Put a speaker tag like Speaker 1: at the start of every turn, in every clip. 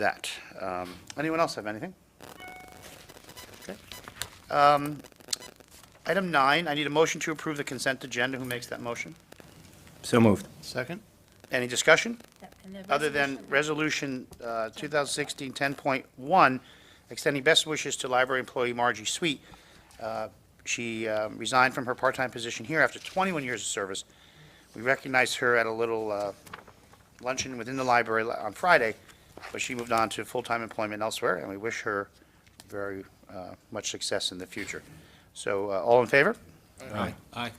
Speaker 1: that. Um, Anyone else have anything? Okay. Um, Item nine, I need a motion to approve the consent agenda. Who makes that motion?
Speaker 2: So moved.
Speaker 1: Second. Any discussion?
Speaker 3: And the
Speaker 1: Other than
Speaker 3: resolution-
Speaker 1: Resolution uh, 2016-10.1, extending best wishes to library employee Margie Sweet. Uh, She uh, resigned from her part-time position here after 21 years of service. We recognized her at a little uh, luncheon within the library la- on Friday, but she moved on to full-time employment elsewhere, and we wish her very uh, much success in the future. So, uh, all in favor?
Speaker 2: Aye.
Speaker 4: Aye.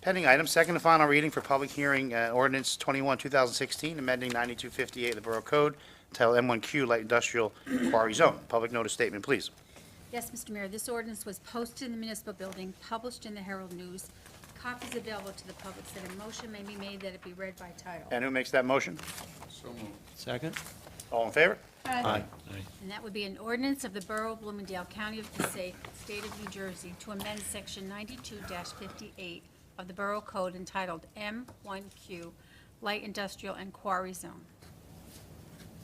Speaker 1: Pending item, second and final reading for public hearing, uh, ordinance 21, 2016, amending 9258 of the Borough Code, Title M1Q Light Industrial Quarry Zone. Public notice statement, please.
Speaker 3: Yes, Mr. Mayor, this ordinance was posted in the municipal building, published in the Herald News. Copies available to the public, so a motion may be made that it be read by title.
Speaker 1: And who makes that motion?
Speaker 4: Second?
Speaker 1: All in favor?
Speaker 3: Aye.
Speaker 4: Aye.
Speaker 3: And that would be an ordinance of the Borough of Bloomingdale, County of Passaic, State of New Jersey, to amend Section 92-58 of the Borough Code entitled M1Q Light Industrial and Quarry Zone.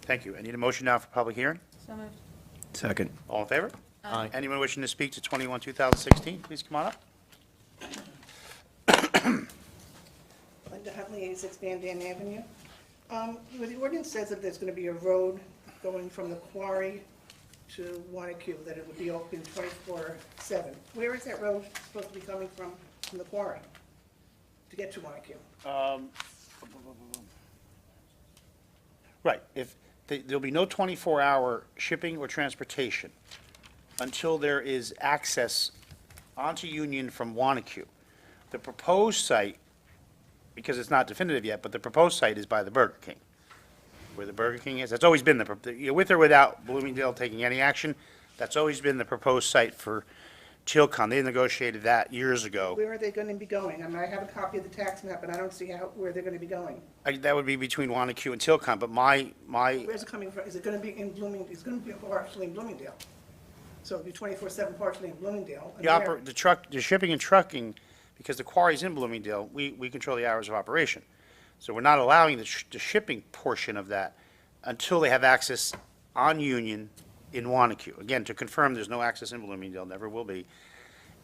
Speaker 1: Thank you. I need a motion now for public hearing.
Speaker 3: So moved.
Speaker 2: Second.
Speaker 1: All in favor?
Speaker 4: Aye.
Speaker 1: Anyone wishing to speak to 21, 2016, please come on up.
Speaker 5: Linda Huntley, 86 Van Dan Avenue. Um, well, The ordinance says that there's going to be a road going from the quarry to Wanacue, that it would be open 24/7. Where is that road supposed to be coming from, from the quarry, to get to Wanacue?
Speaker 1: Right, if, th- there'll be no 24-hour shipping or transportation until there is access onto Union from Wanacue. The proposed site, because it's not definitive yet, but the proposed site is by the Burger King, where the Burger King is. That's always been the, pro- the- you know, with or without Bloomingdale taking any action, that's always been the proposed site for Tilcon. They negotiated that years ago.
Speaker 5: Where are they going to be going? I mean, I have a copy of the tax map, and I don't see how, where they're going to be going.
Speaker 1: I- That would be between Wanacue and Tilcon, but my, my,
Speaker 5: Where's it coming from? Is it going to be in Bloomingdale? It's going to be partially in Bloomingdale. So it'll be 24/7 partially in Bloomingdale. and
Speaker 1: The
Speaker 5: where-
Speaker 1: oper, the truck, the shipping and trucking, because the quarry's in Bloomingdale, we, we control the hours of operation. So we're not allowing the, sh- the shipping portion of that until they have access on Union in Wanacue. Again, to confirm, there's no access in Bloomingdale, never will be.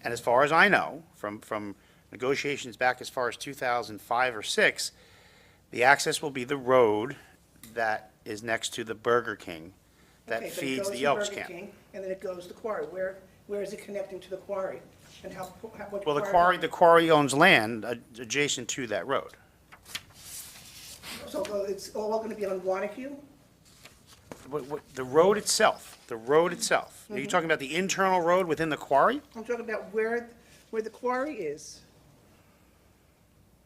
Speaker 1: And as far as I know, from, from negotiations back as far as two thousand five or six, the access will be the road that is next to the Burger King that
Speaker 5: Okay, but it
Speaker 1: feeds
Speaker 5: goes
Speaker 1: the
Speaker 5: to
Speaker 1: Elks
Speaker 5: Burger
Speaker 1: Camp.
Speaker 5: King, And then it goes to quarry. Where, where is it connecting to the quarry? And how, how- what?
Speaker 1: Well, the quarry, the quarry owns land ad- adjacent to that road.
Speaker 5: So uh, it's all going to be on Wanacue?
Speaker 1: What- what- The road itself, the road itself. Are you talking about the internal road within the quarry?
Speaker 5: I'm talking about where, where the quarry is.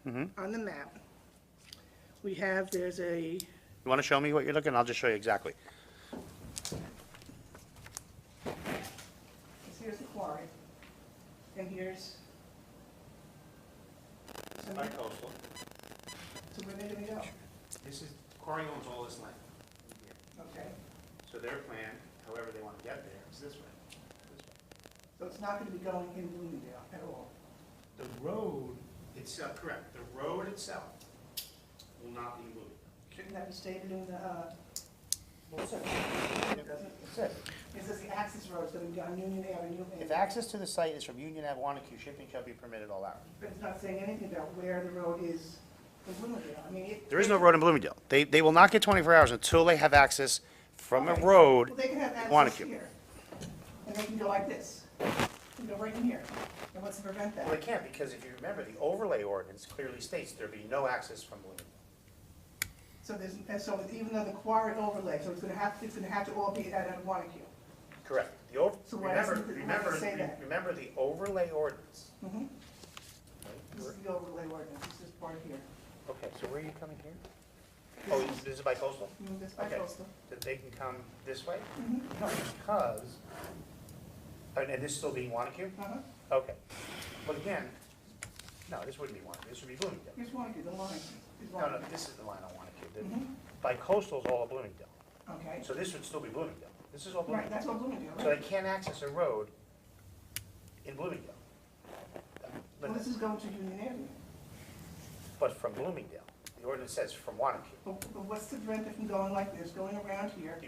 Speaker 1: Mm-hmm.
Speaker 5: On the map. We have, there's a,
Speaker 1: You want to show me what you're looking? I'll just show you exactly.
Speaker 5: here's the quarry. And here's. So where so where did we go?
Speaker 1: This is, quarry owns all this land.
Speaker 5: Okay.
Speaker 1: So their plan, however they want to get there, is this way.
Speaker 5: So it's not going to be going in Bloomingdale at all.
Speaker 1: The road itself, correct, the road itself will not be moved.
Speaker 5: Shouldn't that be stated in the, uh, well, it says- it doesn't, it says, it says the access road is going to be on Union Avenue. and-
Speaker 1: If access to the site is from Union Ave, Wanacue, shipping shall be permitted all hours.
Speaker 5: But it's not saying anything about where the road is in Bloomingdale. I mean, it.
Speaker 1: There is no road in Bloomingdale. They, they will not get 24 hours until they have access from a road.
Speaker 5: Well, they can have access
Speaker 1: Wanacue.
Speaker 5: here. And they can go like this. They can go right in here. And what's to prevent
Speaker 1: Well, they
Speaker 5: that?
Speaker 1: can't, because if you remember, the overlay ordinance clearly states there'd be no access from Bloomingdale.
Speaker 5: So there's, and so even though the quarry overlay, so it's going to have, it's going to have to all be at Wanacue.
Speaker 1: Correct. The over,
Speaker 5: So why
Speaker 1: remember,
Speaker 5: doesn't the- why
Speaker 1: remember,
Speaker 5: does it say
Speaker 1: re-
Speaker 5: that?
Speaker 1: remember the overlay ordinance.
Speaker 5: Mhm. This
Speaker 1: Where-
Speaker 5: is the overlay ordinance. This is part here.
Speaker 1: Okay, so where are you coming here? Oh, this is by coastal?
Speaker 5: Mm, This by
Speaker 1: Okay.
Speaker 5: coastal. Mm-hmm.
Speaker 1: That they can come this way? No, because, and, and this still being Wanacue?
Speaker 5: Uh-huh.
Speaker 1: Okay. But again, no, this wouldn't be Wanacue, this would be Bloomingdale.
Speaker 5: Here's Wanacue, the line. is
Speaker 1: No, no,
Speaker 5: Wanacue.
Speaker 1: this is the line I want to keep.
Speaker 5: Mm-hmm.
Speaker 1: By coastal's all of Bloomingdale.
Speaker 5: Okay.
Speaker 1: So this would still be Bloomingdale. This is all
Speaker 5: Right,
Speaker 1: Bloomingdale.
Speaker 5: that's what Bloomingdale,
Speaker 1: So they
Speaker 5: right?
Speaker 1: can't access a road in Bloomingdale.
Speaker 5: Well,
Speaker 1: But,
Speaker 5: this is going to Union Avenue.
Speaker 1: but from Bloomingdale. The ordinance says from Wanacue.
Speaker 5: But but what's to prevent it from going like this, going around here?